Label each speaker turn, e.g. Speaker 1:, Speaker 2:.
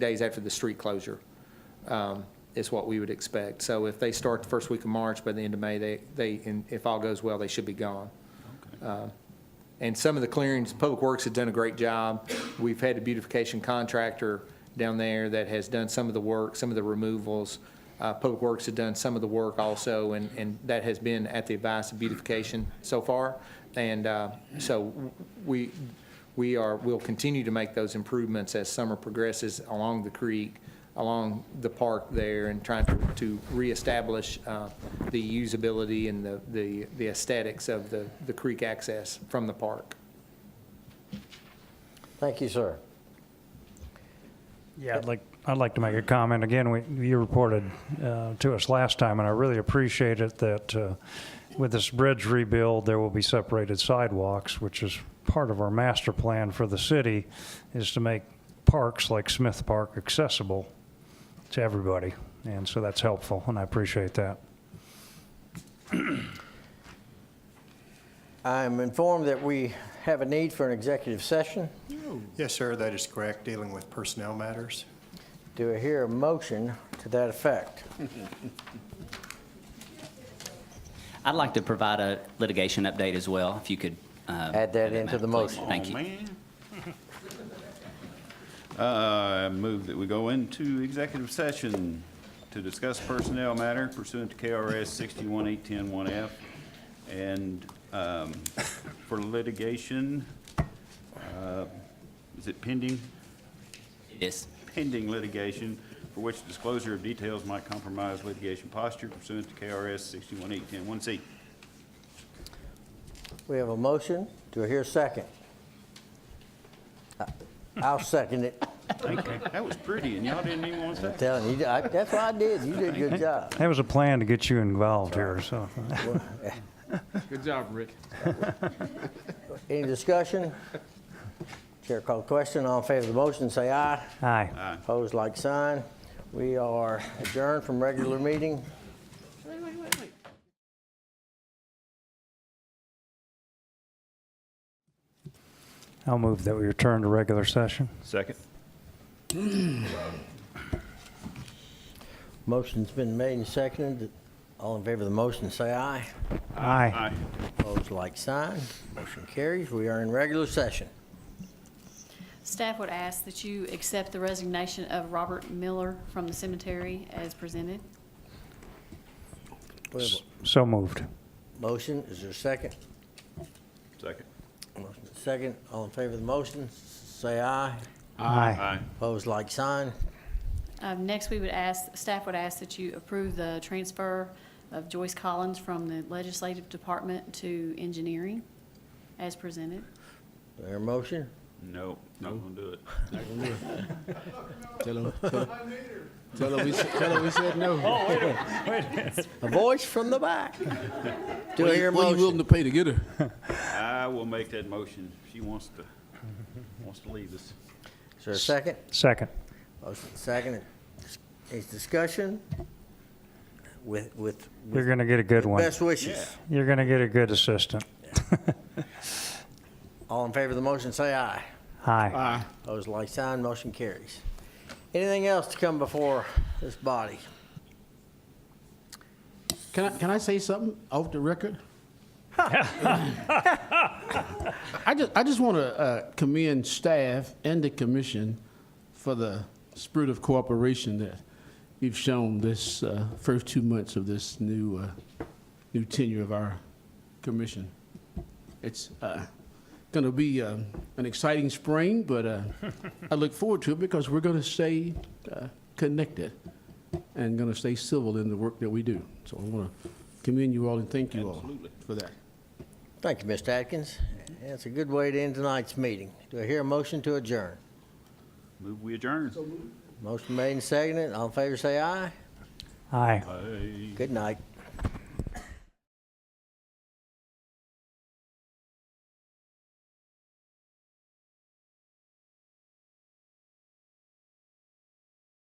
Speaker 1: days after the street closure um, is what we would expect. So if they start the first week of March, by the end of May, they, they, and if all goes well, they should be gone. Uh, And some of the clearings, Public Works has done a great job. We've had a beautification contractor down there that has done some of the work, some of the removals. Uh, Public Works had done some of the work also, and, and that has been at the advice of beautification so far. And uh, so we, we are, we'll continue to make those improvements as summer progresses along the creek, along the park there, and trying to to reestablish uh, the usability and the- the the aesthetics of the the creek access from the park.
Speaker 2: Thank you, sir.
Speaker 3: Yeah, I'd like, I'd like to make a comment. Again, we, you reported uh, to us last time, and I really appreciate it that uh, with this bridge rebuild, there will be separated sidewalks, which is part of our master plan for the city, is to make parks like Smith Park accessible to everybody. And so that's helpful, and I appreciate that.
Speaker 2: I'm informed that we have a need for an executive session.
Speaker 4: Yes, sir, that is correct, dealing with personnel matters.
Speaker 2: Do I hear a motion to that effect?
Speaker 5: I'd like to provide a litigation update as well, if you could. uh,
Speaker 2: Add that into the
Speaker 5: Madam, please.
Speaker 2: motion.
Speaker 6: Oh,
Speaker 5: Thank you.
Speaker 6: Uh, I move that we go into executive session to discuss personnel matter pursuant to KRS 618101F and um, for litigation, uh, is it pending?
Speaker 5: Yes.
Speaker 6: Pending litigation for which disclosure of details might compromise litigation posture pursuant to KRS 618101C.
Speaker 2: We have a motion. Do I hear a second? I'll second it.
Speaker 6: That was pretty, and y'all didn't even want to say.
Speaker 2: I'm telling you, I- that's what I did. You did a good job.
Speaker 3: That was a plan to get you involved here, so.
Speaker 1: Good job, Rick.
Speaker 2: Any discussion? Chair called question. All in favor of the motion, say aye.
Speaker 3: Aye.
Speaker 2: Opposed, like sign. We are adjourned from regular meeting.
Speaker 3: I'll move that we return to regular session.
Speaker 6: Second.
Speaker 2: Motion's been made and seconded. All in favor of the motion, say aye.
Speaker 3: Aye.
Speaker 6: Aye.
Speaker 2: Opposed, like sign. Motion carries. We are in regular session.
Speaker 7: Staff would ask that you accept the resignation of Robert Miller from the cemetery as presented.
Speaker 2: We have
Speaker 3: So moved.
Speaker 2: a motion. Is there a second?
Speaker 6: Second.
Speaker 2: Motion is second. All in favor of the motion, say aye.
Speaker 3: Aye.
Speaker 6: Aye.
Speaker 2: Opposed, like sign.
Speaker 7: Um, Next, we would ask, staff would ask that you approve the transfer of Joyce Collins from the Legislative Department to Engineering as presented.
Speaker 2: There a motion?
Speaker 6: No, not gonna do it.
Speaker 8: Tell him. Tell, tell him we, s- tell him we said no.
Speaker 2: A voice from the back. Do I hear a
Speaker 8: What are you
Speaker 2: motion?
Speaker 8: willing to pay to get her?
Speaker 6: I will make that motion. She wants to, wants to leave us.
Speaker 2: Is there a second?
Speaker 3: Second.
Speaker 2: Motion is second. Is discussion with, with
Speaker 3: You're going to get a good one.
Speaker 2: best wishes.
Speaker 6: Yeah.
Speaker 3: You're going to get a good assistant.
Speaker 2: All in favor of the motion, say aye.
Speaker 3: Aye.
Speaker 8: Uh,
Speaker 2: Opposed, like sign. Motion carries. Anything else to come before this body?
Speaker 8: Can I, can I say something off the record? I just, I just want to uh, commend staff and the commission for the spirit of cooperation that you've shown this uh, first two months of this new, uh, new tenure of our commission. It's going to be um, an exciting spring, but uh, I look forward to it because we're going to stay uh, connected and going to stay civil in the work that we do. So I want to commend you all and thank you all for that.
Speaker 2: Thank you, Mr. Atkins. That's a good way to end tonight's meeting. Do I hear a motion to adjourn?
Speaker 6: Move we adjourn.
Speaker 2: Motion made and seconded. All in favor, say aye.
Speaker 3: Aye.
Speaker 6: Aye.
Speaker 2: Good night.